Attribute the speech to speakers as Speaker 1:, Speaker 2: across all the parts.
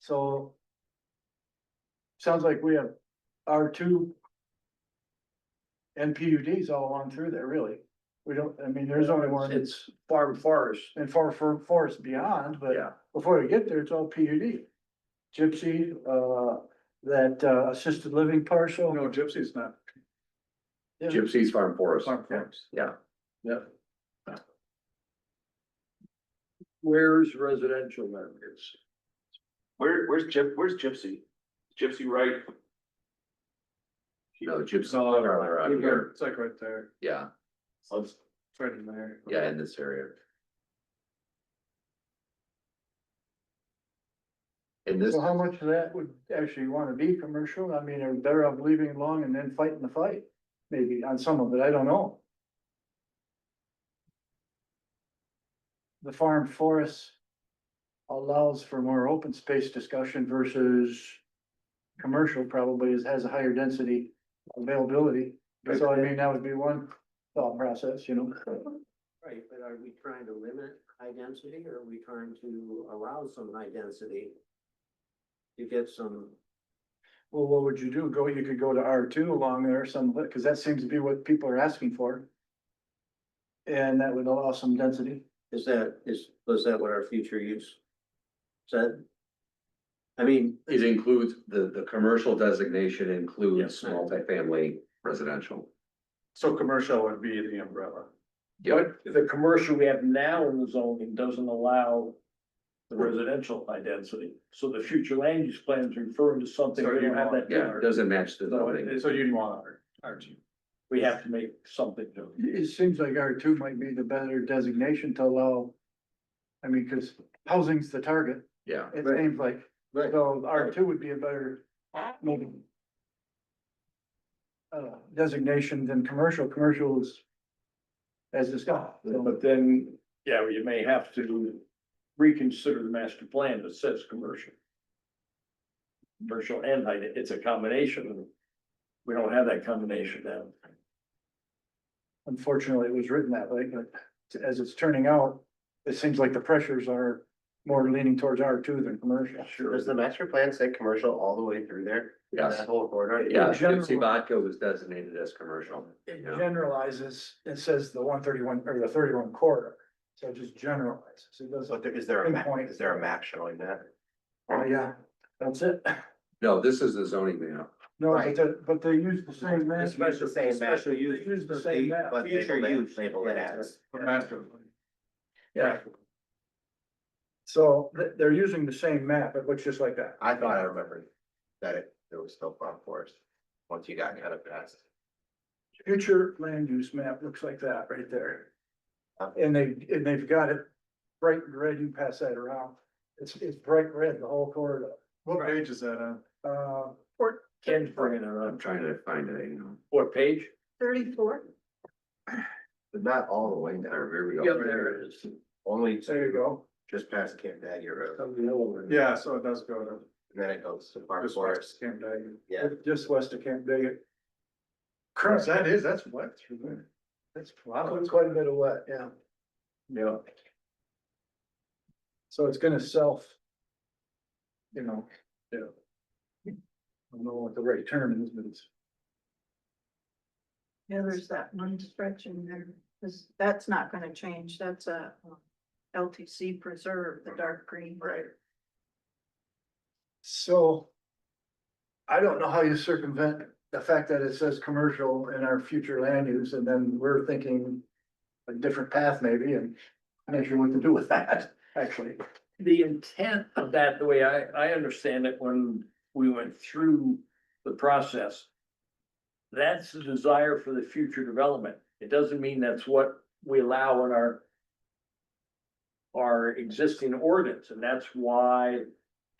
Speaker 1: So. Sounds like we have our two. NPUDs all along through there, really. We don't, I mean, there's only one
Speaker 2: It's farm forest,
Speaker 1: in far for forest beyond, but
Speaker 2: yeah,
Speaker 1: before we get there, it's all PUD. Gypsy, uh, that uh, assisted living partial.
Speaker 3: No, Gypsy's not.
Speaker 1: Yeah.
Speaker 2: Gypsy's farm forest,
Speaker 3: Farm farms.
Speaker 2: yeah.
Speaker 3: Where's residential then? It's
Speaker 4: Where, where's Gyp, where's Gypsy? Gypsy right?
Speaker 2: No, gypsy's farther out uh, here,
Speaker 3: It's like right there,
Speaker 2: yeah,
Speaker 4: Let's,
Speaker 3: it's right in there.
Speaker 2: yeah, in this area. In this,
Speaker 1: So how much of that would actually wanna be commercial? I mean, are they better off leaving it alone and then fighting the fight? Maybe on some of it, I don't know. The farm forest allows for more open space discussion versus commercial probably is, has a higher density availability. So I mean, that would be one thought process, you know?
Speaker 5: Right, but are we trying to limit high density or are we trying to allow some high density? To get some,
Speaker 1: Well, what would you do? Go, you could go to R two along there some, because that seems to be what people are asking for. And that would allow some density.
Speaker 5: is that, is, was that what our future use said? I mean,
Speaker 2: it includes, the, the commercial designation includes
Speaker 5: Yes.
Speaker 2: multifamily residential.
Speaker 3: So commercial would be the umbrella.
Speaker 2: Yep,
Speaker 3: the commercial we have now in the zoning doesn't allow the residential high density, so the future land use plan is referring to something
Speaker 6: So
Speaker 3: we
Speaker 6: you
Speaker 3: don't have
Speaker 6: want-
Speaker 3: that.
Speaker 2: yeah, it doesn't match the
Speaker 6: So,
Speaker 2: zoning.
Speaker 6: it- so you'd want R, R two.
Speaker 3: We have to make something new.
Speaker 1: It it seems like R two might be the better designation to allow. I mean, because housing's the target,
Speaker 2: yeah,
Speaker 1: it
Speaker 5: Right.
Speaker 1: seems like,
Speaker 5: right,
Speaker 1: so uh, R two would be a better. maybe, Uh, designation than commercial, commercial is. As discussed, so
Speaker 3: But then, yeah, you may have to reconsider the master plan that says commercial. Commercial and high, it's a combination. We don't have that combination now.
Speaker 1: unfortunately, it was written that way, but as it's turning out. It seems like the pressures are more leaning towards R two than commercial.
Speaker 3: Sure.
Speaker 5: does the master plan say commercial all the way through there?
Speaker 2: Yes.
Speaker 5: That whole corridor?
Speaker 2: yeah,
Speaker 1: general-
Speaker 2: gypsy vodka was designated as commercial.
Speaker 1: It
Speaker 2: Yeah.
Speaker 1: generalizes, it says the one thirty-one, or the thirty-one corridor, so it just generalizes, it
Speaker 5: So
Speaker 1: doesn't,
Speaker 5: there, is there a map,
Speaker 1: Pinpoint.
Speaker 5: is there a map showing that?
Speaker 1: oh yeah, that's it.
Speaker 2: No, this is the zoning map.
Speaker 1: No, but
Speaker 5: Right.
Speaker 1: they, but they use the same map.
Speaker 5: It's the same map.
Speaker 1: Especially use, use the same map.
Speaker 5: But future use label it as.
Speaker 6: The master plan.
Speaker 1: Yeah. So they, they're using the same map, it looks just like that.
Speaker 5: I thought I remembered that it, there was still farm forest, once you got kind of past.
Speaker 1: Future land use map looks like that right there.
Speaker 5: Uh.
Speaker 1: And they, and they've got it bright red, you can pass that around, it's, it's bright red, the whole corridor,
Speaker 6: What page is that on?
Speaker 1: uh.
Speaker 3: Ken's bringing it
Speaker 2: I'm
Speaker 3: up.
Speaker 2: trying to find it, you know.
Speaker 3: What page?
Speaker 7: Thirty-four?
Speaker 5: But not all the way down,
Speaker 2: There, here we
Speaker 3: Yeah,
Speaker 2: go.
Speaker 3: there it is.
Speaker 5: only
Speaker 1: There you go.
Speaker 5: just past Camp Daddy Road, and
Speaker 6: Yeah, so it does go to.
Speaker 5: then it goes to farm
Speaker 6: this
Speaker 5: forest,
Speaker 6: Camp Daggett.
Speaker 5: yeah.
Speaker 1: Just west of Camp Daggett.
Speaker 6: Chris, that is, that's wet through there.
Speaker 1: That's Quite a bit of wet, yeah.
Speaker 3: Yeah.
Speaker 1: So it's gonna self. You know.
Speaker 6: Yeah.
Speaker 1: I don't know what the right term is, but it's,
Speaker 7: Yeah, there's that one stretch in there, 'cause that's not gonna change, that's a um, LTC preserve, the dark green. Right.
Speaker 1: so. I don't know how you circumvent the fact that it says commercial in our future land use, and then we're thinking. A different path maybe, and I'm not sure what to do with that, actually.
Speaker 3: the intent of that, the way I, I understand it, when we went through the process. That's the desire for the future development. It doesn't mean that's what we allow in our. Our existing ordinance, and that's why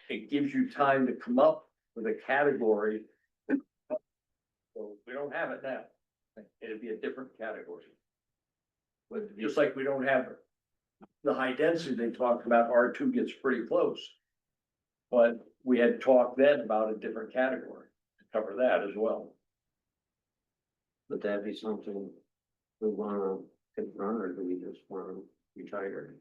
Speaker 3: it gives you time to come up with a category. So we don't have it now. It'd be a different category. But just like we don't have the high density they talked about, R two gets pretty close. But we had talked then about a different category to cover that as well.
Speaker 5: Would that be something we wanna confront, or do we just wanna retire?